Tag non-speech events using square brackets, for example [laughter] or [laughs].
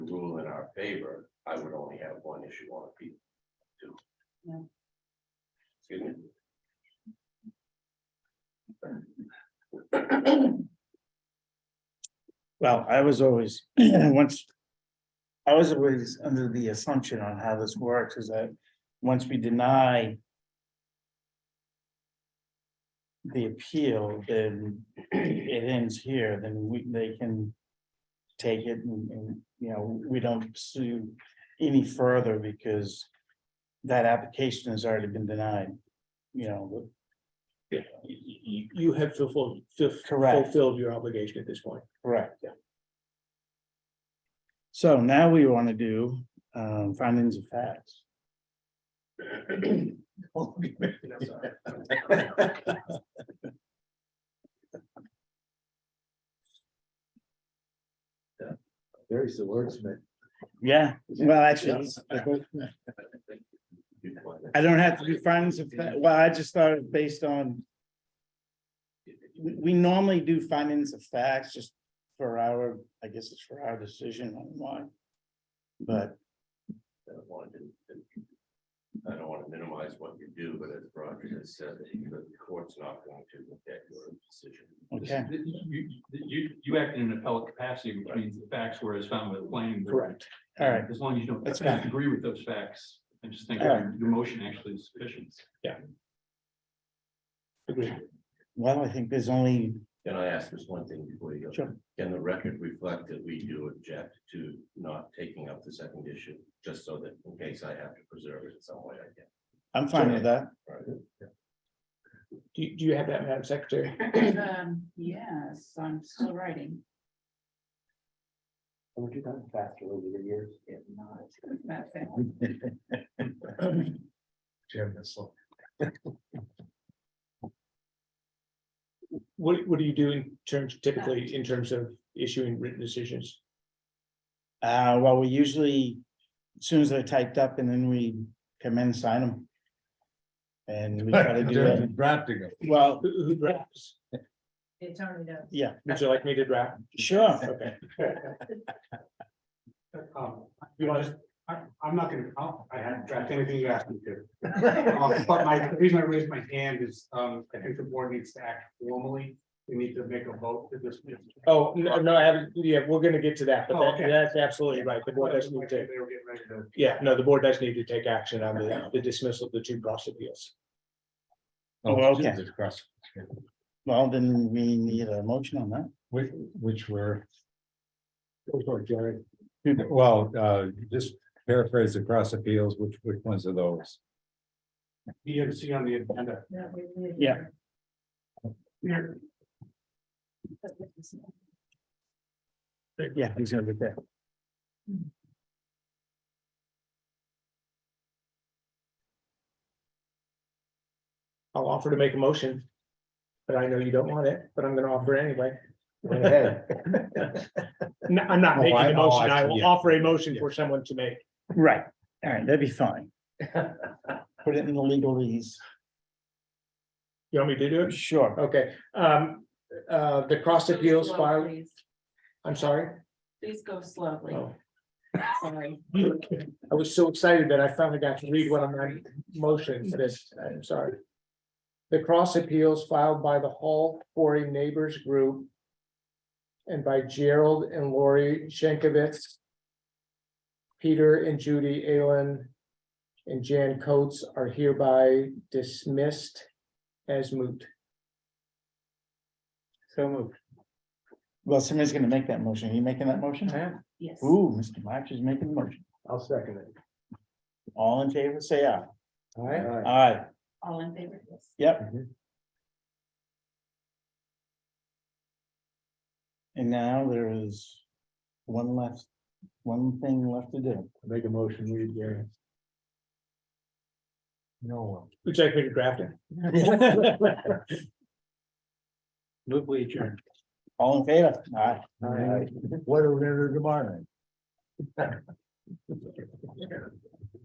favor, I would only have one issue on appeal. Two. Yeah. Excuse me. Well, I was always, [clears throat] once. I was always under the assumption on how this works is that once we deny. The appeal, then it ends here, then we, they can. Take it and, and, you know, we don't pursue any further because. That application has already been denied, you know, You, you have fulfilled, fulf- Correct. fulfilled your obligation at this point. Correct. So now we want to do um, findings of facts. There's the wordsmith. Yeah, well, actually, I don't have to do findings of, fact. well, I just started based on. We, we normally do findings of facts just for our, I guess it's for our decision on why. But I don't want to- I don't want to minimize what you do, but as Roger has said, the court's not going to look at your decision. Okay. You, you, you acted in an appellate capacity, which means the facts were as found by the planning. board. All right. As long as you don't That's fine. agree with those facts, I just think All your right. your motion actually is sufficient. well, I think there's only, Can I ask this one thing before you go? Sure. Can the record reflect that we do object to not taking up the second issue, just so that in case I have to preserve it in some way, I can. I'm fine with that. Do, you- do you have that, Madam Secretary? Um, yes, I'm still writing. Would you done faster over the years? If not. That's it. [laughs] Jim, that's all. What, what do you do in terms, typically in terms of issuing written decisions? Uh, well, we usually, as soon as they're typed up and then we come in and sign them. And we try to do that. Drafting them. Well, Who, who drafts? The attorney does. yeah, Would you like me to draft? sure. Okay. Um, you know, just- I, I'm not gonna, I'll- I haven't tracked anything you asked me [laughs] to. Um, But my, the reason I raised my hand is, um, I think the board needs to act formally. We need to make a vote for this. Oh, no, no, I haven't, yeah, we're gonna get to that, but Oh, that- okay. that's absolutely right. The board Like, does they were need to, getting ready to- yeah, no, the board does need to take action on the the dismissal of the two cross appeals. Oh, okay. Well, then we need a motion on that. Which, which were. Go for it, Jerry. Well, uh, just paraphrase the cross appeals, which, which ones are those? You have to see on the agenda. Yeah. Yeah, he's gonna be there. I'll offer to make a motion. But I know you don't want it, but I'm gonna offer anyway. No, I'm not Oh, making I- a oh, motion. I I see, will yeah. offer a motion for someone to make. Right, all right, that'd be fine. [laughs] Put it in the legalese. You want me to do it? Sure. Okay, um, uh, the cross appeals Slow, filed, please. I'm sorry. Please go slowly, Oh. sorry. I was so excited that I finally got to read one of my motions for this, I'm sorry. The cross appeals filed by the Hall Quarry Neighbors Group. And by Gerald and Lori Shankovitz. Peter and Judy Allen. And Jan Coates are hereby dismissed as moot. So moved. Well, somebody's gonna make that motion. Are you making that motion? Yes. Ooh, Mr. March is making the motion. I'll second it. All in favor, say aye. All right. Aye, All in favor, yes. yep. And now there is one left, one thing left to do. Make a motion, we adjourn. No one. Would you like me to draft it? [laughs] Move we adjourn. All in favor? Aye. All right. What are we gonna do tomorrow? night?